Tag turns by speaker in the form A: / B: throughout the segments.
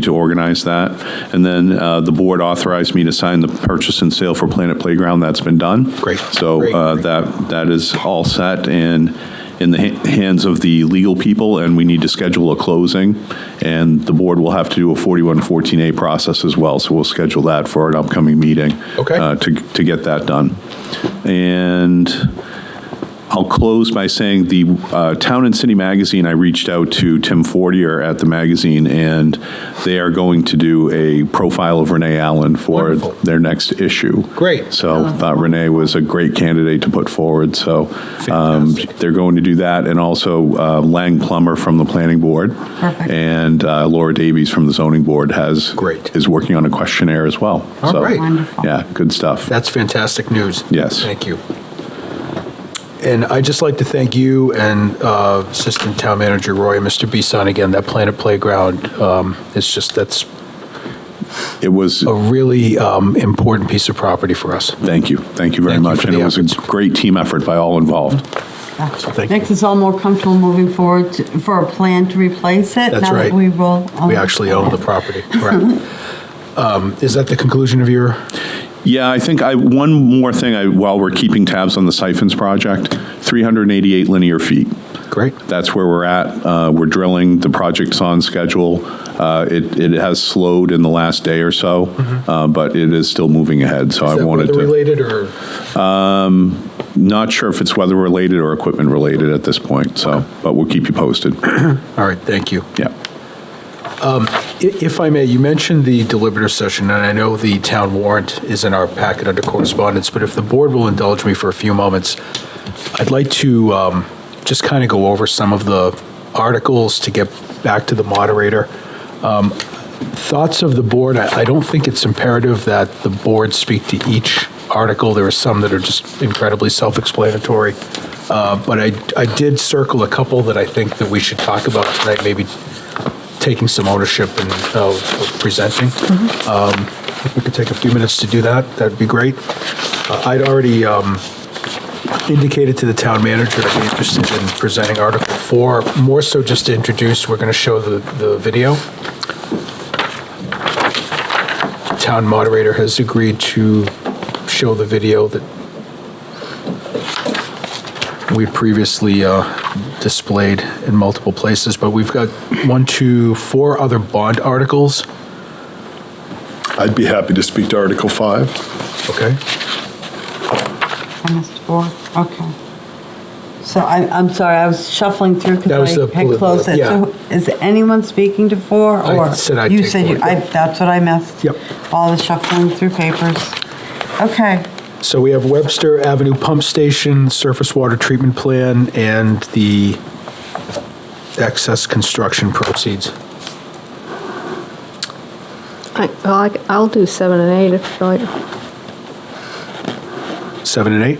A: to organize that. And then uh, the board authorized me to sign the purchase and sale for Planet Playground. That's been done.
B: Great.
A: So uh, that, that is all set and in the ha- hands of the legal people, and we need to schedule a closing. And the board will have to do a 4114A process as well, so we'll schedule that for an upcoming meeting.
B: Okay.
A: uh, To, to get that done. And I'll close by saying the uh, Town and City Magazine, I reached out to Tim Fortier at the magazine, and they are going to do a profile of Renee Allen for
B: Wonderful.
A: their next issue.
B: Great.
A: So thought Renee was a great candidate to put forward, so um,
B: Fantastic.
A: they're going to do that, and also uh, Lang Plummer from the Planning Board.
C: Perfect.
A: And uh, Laura Davies from the Zoning Board has.
B: Great.
A: Is working on a questionnaire as well.
B: All
A: So,
B: right.
C: Wonderful.
A: Yeah, good stuff.
B: That's fantastic news.
A: Yes.
B: Thank you. And I'd just like to thank you and uh, Assistant Town Manager Roy and Mr. Bisson again, that Planet Playground, um, it's just, that's
A: It was.
B: a really um, important piece of property for us.
A: Thank you. Thank you very
B: Thank you
A: much.
B: for
A: And
B: the
A: it was a
B: efforts.
A: great team effort by all involved.
B: Thank you.
C: Makes us all more comfortable moving forward to- for a plan to replace it.
B: That's
C: now that
B: right.
C: we will. own
B: We actually
C: it.
B: own the property. Correct. Um, Is that the conclusion of your,
A: Yeah, I think I, one more thing, I, while we're keeping tabs on the siphons project, 388 linear feet.
B: great?
A: That's where we're at. Uh, We're drilling, the project's on schedule. Uh, It, it has slowed in the last day or so, uh, but it is still moving ahead, so I wanted
B: Mm-hmm. Is that
A: to.
B: weather-related or?
A: Not sure if it's weather-related or equipment-related at this point, so, but we'll keep you posted.
B: All right, thank you.
A: Yeah.
B: I- If I may, you mentioned the deliberative session, and I know the town warrant is in our packet under correspondence, but if the board will indulge me for a few moments, I'd like to um, just kind of go over some of the articles to get back to the moderator. Um, Thoughts of the board, I I don't think it's imperative that the board speak to each article. There are some that are just incredibly self-explanatory. Uh, But I I did circle a couple that I think that we should talk about tonight, maybe taking some ownership and uh, of presenting. Um, If we could take a few minutes to do that, that'd be great. Uh, I'd already um, indicated to the town manager that I'm interested in presenting Article 4, more so just to introduce, we're going to show the the video. Town moderator has agreed to show the video that we previously uh, displayed in multiple places, but we've got one, two, four other bond articles.
D: I'd be happy to speak to Article 5.
B: Okay.
C: I missed four, okay. So I, I'm sorry, I was shuffling through
B: That was
C: because
B: the
C: I had
B: polit-
C: closed it.
B: yeah.
C: So Is anyone speaking to four
B: I
C: or?
B: said I'd
C: You
B: take
C: said you,
B: four,
C: I,
B: yeah.
C: that's what I missed.
B: Yep.
C: All the shuffling through papers. Okay,
B: So we have Webster Avenue Pump Station, Surface Water Treatment Plan, and the excess construction proceeds.
E: I, well, I, I'll do seven and eight if you like.
B: Seven and eight?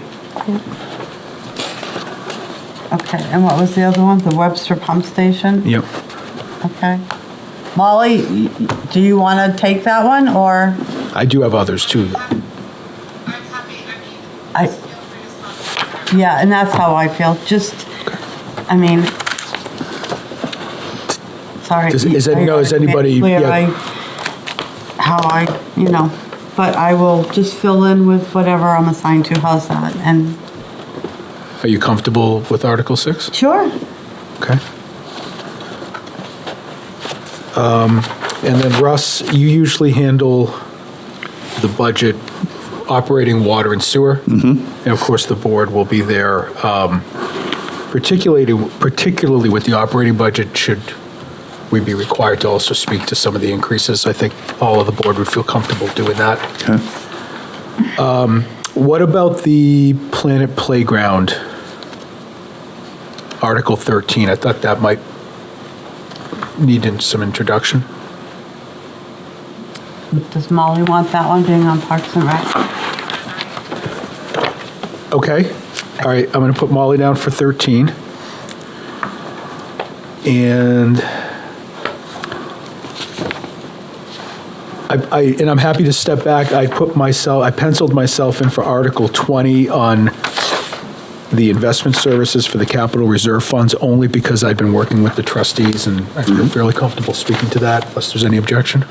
C: okay. And what was the other one? The Webster Pump Station?
B: Yep.
C: Okay. Molly, y- y- do you want to take that one or?
B: I do have others too.
F: I'm happy, I mean,
C: I-
F: feel free to stop.
C: Yeah, and that's how I feel, just, I mean, sorry.
B: Does- is it- no, is
C: I gotta make
B: anybody-
C: clear
B: yeah.
C: I- How I, you know, but I will just fill in with whatever I'm assigned to, how's that? And,
B: Are you comfortable with Article 6?
C: sure,
B: Okay. Um, Um, And then Russ, you usually handle the budget, operating water and sewer. And of course, the board will be there. um, Particularly, particularly with the operating budget, should we be required to also speak to some of the increases? I think all of the board would feel comfortable doing that. Um,
A: Okay.
B: What about the Planet Playground? Article 13, I thought that might need in- some introduction.
C: does Molly want that one being on Parks and Rec?
B: Okay, all right, I'm going to put Molly down for 13. And I, I, and I'm happy to step back, I put myself, I penciled myself in for Article 20 on the investment services for the capital reserve funds only because I've been working with the trustees and I feel fairly comfortable speaking to that, unless there's any objection.